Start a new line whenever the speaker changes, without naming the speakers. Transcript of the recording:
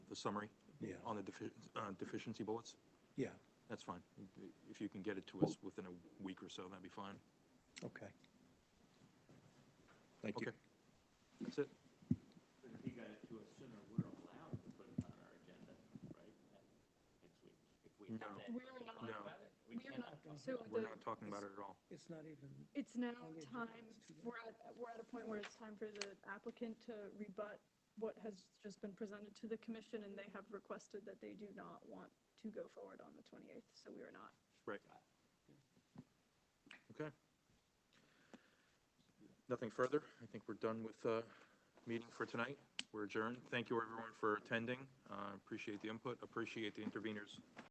the summary?
Yeah.
On the defi- uh, deficiency bullets?
Yeah,
That's fine. If you can get it to us within a week or so, that'd be fine.
okay. Thank you.
Okay. That's it.
But if you got it to us sooner, we're allowed to put it on our agenda, right? Next week, if we have that.
We're not-
talk about it, We
We're
cannot.
not, so
We're
the-
not talking about it at all.
It's not even,
it's now time, we're at, we're at a point where it's time for the applicant to rebut what has just been presented to the commission, and they have requested that they do not want to go forward on the 28th, so we are not.
Right. Okay. Nothing further. I think we're done with the meeting for tonight. We're adjourned. Thank you, everyone, for attending. Uh, Appreciate the input, appreciate the interveners.